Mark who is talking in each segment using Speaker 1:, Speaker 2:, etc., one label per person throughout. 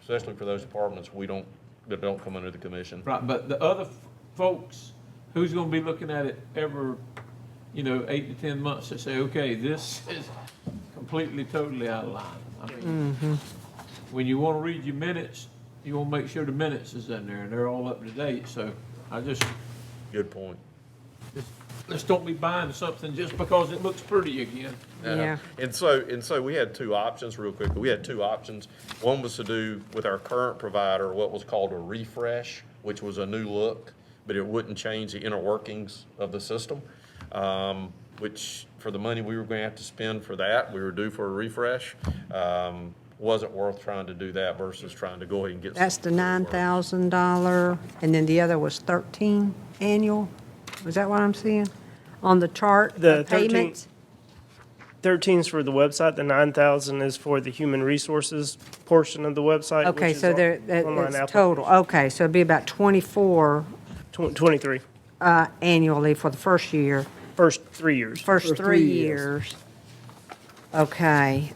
Speaker 1: especially for those departments we don't, that don't come under the commission.
Speaker 2: Right, but the other f- folks, who's gonna be looking at it every, you know, eight to ten months to say, okay, this is completely, totally out of line. I mean, when you wanna read your minutes, you wanna make sure the minutes is in there and they're all up to date, so I just,
Speaker 1: Good point.
Speaker 2: let's don't be buying something just because it looks pretty again.
Speaker 3: Yeah.
Speaker 1: And so, and so we had two options real quick. We had two options. One was to do with our current provider, what was called a refresh, which was a new look, but it wouldn't change the inner workings of the system. Um, which for the money we were going to have to spend for that, we were due for a refresh. Um, wasn't worth trying to do that versus trying to go ahead and get.
Speaker 3: That's the
Speaker 1: something that
Speaker 3: nine
Speaker 1: worked.
Speaker 3: thousand dollar, and then the other was thirteen annual? Is that what I'm seeing? On the chart,
Speaker 4: The
Speaker 3: the
Speaker 4: 13
Speaker 3: payments?
Speaker 4: 13 is for the website, the 9,000 is for the human resources portion of the website. which
Speaker 3: Okay,
Speaker 4: is
Speaker 3: so
Speaker 4: on-
Speaker 3: there, that-
Speaker 4: online
Speaker 3: it's
Speaker 4: app-
Speaker 3: total, okay, so it'd be about twenty-four,
Speaker 4: tw- 23,
Speaker 3: uh, annually for the first year,
Speaker 4: first three years.
Speaker 3: first three years. Okay,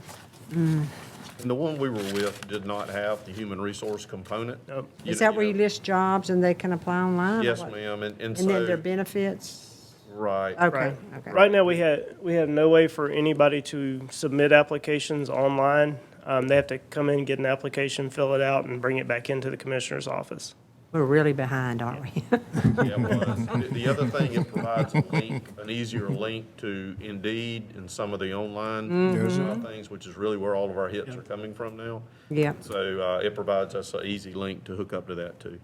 Speaker 1: And the one we were with did not have the human resource component.
Speaker 4: Nope.
Speaker 3: is that where you list jobs and they can apply online? or
Speaker 1: Yes,
Speaker 3: what?
Speaker 1: ma'am, and, and
Speaker 3: And then their
Speaker 1: so,
Speaker 3: benefits?
Speaker 1: right.
Speaker 3: Okay,
Speaker 4: Right.
Speaker 3: okay.
Speaker 4: Right now, we had, we have no way for anybody to submit applications online. Um, They have to come in, get an application, fill it out, and bring it back into the commissioner's office.
Speaker 3: We're really behind, aren't we?
Speaker 1: Yeah, it was. The- The other thing, it provides a link, an easier link to Indeed and some of the online
Speaker 3: Mm-hmm.
Speaker 1: uh, things, which is really where all of our hits are coming from now.
Speaker 3: Yep.
Speaker 1: So uh, it provides us an easy link to hook up to that too.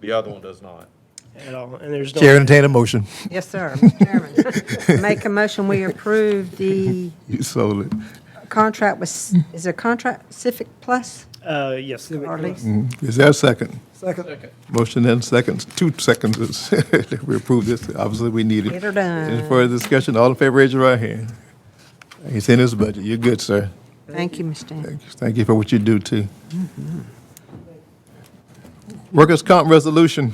Speaker 1: The other one does not.
Speaker 4: At all, and there's
Speaker 5: Chair,
Speaker 4: no,
Speaker 5: entertain a motion.
Speaker 3: Yes, sir, Mr. Chairman. Make a motion, we approve the
Speaker 5: You sold it.
Speaker 3: contract with, is there a contract Civic Plus
Speaker 4: uh, yes.
Speaker 3: or lease?
Speaker 5: Is there a second?
Speaker 2: Second.
Speaker 5: Motion and seconds, two seconds. is- if We approve this, obviously we need it.
Speaker 3: Get her done.
Speaker 5: Any further discussion? All in favor, raise your right hand. It's in his budget. You're good, sir.
Speaker 3: Thank you, Ms. Stanton.
Speaker 5: Thank you for what you do, too. Workers' comp resolution.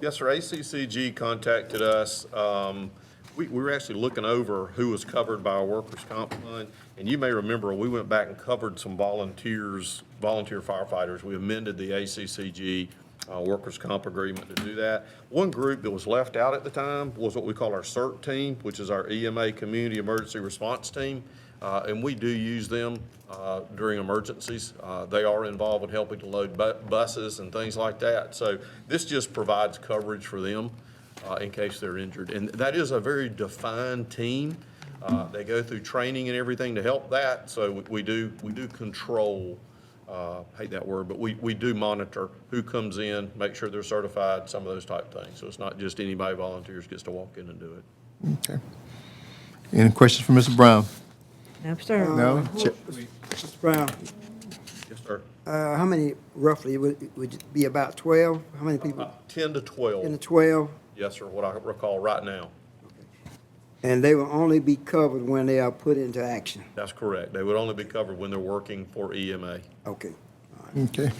Speaker 1: Yes, sir. ACCG contacted us. Um, We, we were actually looking over who was covered by our workers' comp fund. And you may remember, we went back and covered some volunteers, volunteer firefighters. We amended the ACCG uh, workers' comp agreement to do that. One group that was left out at the time was what we call our CERT team, which is our EMA Community Emergency Response Team. Uh, And we do use them uh, during emergencies. Uh, They are involved in helping to load bu- buses and things like that. So this just provides coverage for them uh, in case they're injured. And that is a very defined team. Uh, They go through training and everything to help that. So we- we do, we do control, uh, hate that word, but we, we do monitor who comes in, make sure they're certified, some of those type things. So it's not just anybody volunteers gets to walk in and do it.
Speaker 5: Okay. Any questions for Mr. Brown?
Speaker 3: No, sir.
Speaker 5: No? Chair-
Speaker 6: Mr. Brown,
Speaker 1: Yes, sir.
Speaker 6: uh, how many roughly, would, would it be about twelve? How many people?
Speaker 1: 10 to 12.
Speaker 6: In the twelve?
Speaker 1: Yes, sir, what I recall right now.
Speaker 6: And they will only be covered when they are put into action.
Speaker 1: That's correct. They would only be covered when they're working for E EMA.
Speaker 6: Okay.
Speaker 5: Okay.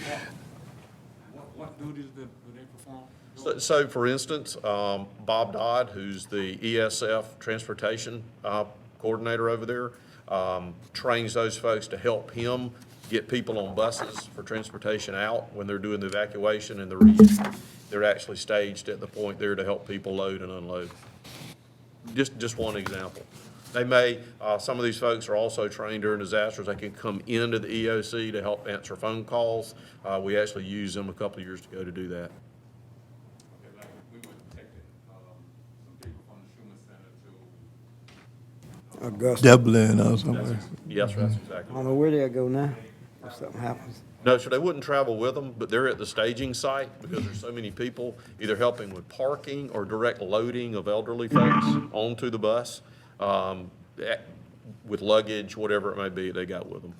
Speaker 2: What, what duties do do they perform?
Speaker 1: So- So, for instance, um, Bob Dodd, who's the ESF Transportation uh, Coordinator over there, um, trains those folks to help him get people on buses for transportation out when they're doing the evacuation and the reentry. They're actually staged at the point there to help people load and unload. Just, just one example. They may, uh, some of these folks are also trained during disasters. They can come into the EOC to help answer phone calls. Uh, We actually used them a couple of years ago to do that.
Speaker 7: Okay, like, we were detecting, um, some people from the Schuman Center to
Speaker 6: Augusta.
Speaker 5: Dublin or somewhere.
Speaker 1: Yes, sir, that's
Speaker 6: I
Speaker 1: exactly.
Speaker 6: don't know where they'll go now if something happens.
Speaker 1: No, so they wouldn't travel with them, but they're at the staging site because there's so many people either helping with parking or direct loading of elderly folks onto the bus, um, eh, with luggage, whatever it may be, they got with them.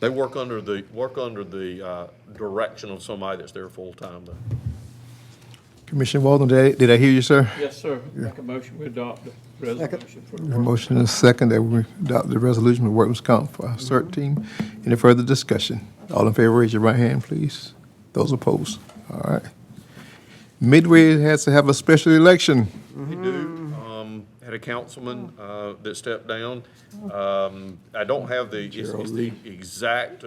Speaker 1: They work under the, work under the, uh, direction of somebody that's there full-time though.
Speaker 5: Commissioner Walden, did I- did I hear you, sir?
Speaker 2: Yes, sir. Make a motion, we adopt the resolution for the
Speaker 5: A
Speaker 2: work.
Speaker 5: motion and a second that we adopt the resolution with workers' comp for our CERT team. Any further discussion? All in favor, raise your right hand, please. Those opposed? All right. Midway has to have a special election.
Speaker 1: They do. Um, had a councilman, uh, that stepped down. Um, I don't have the, it's, it's the exact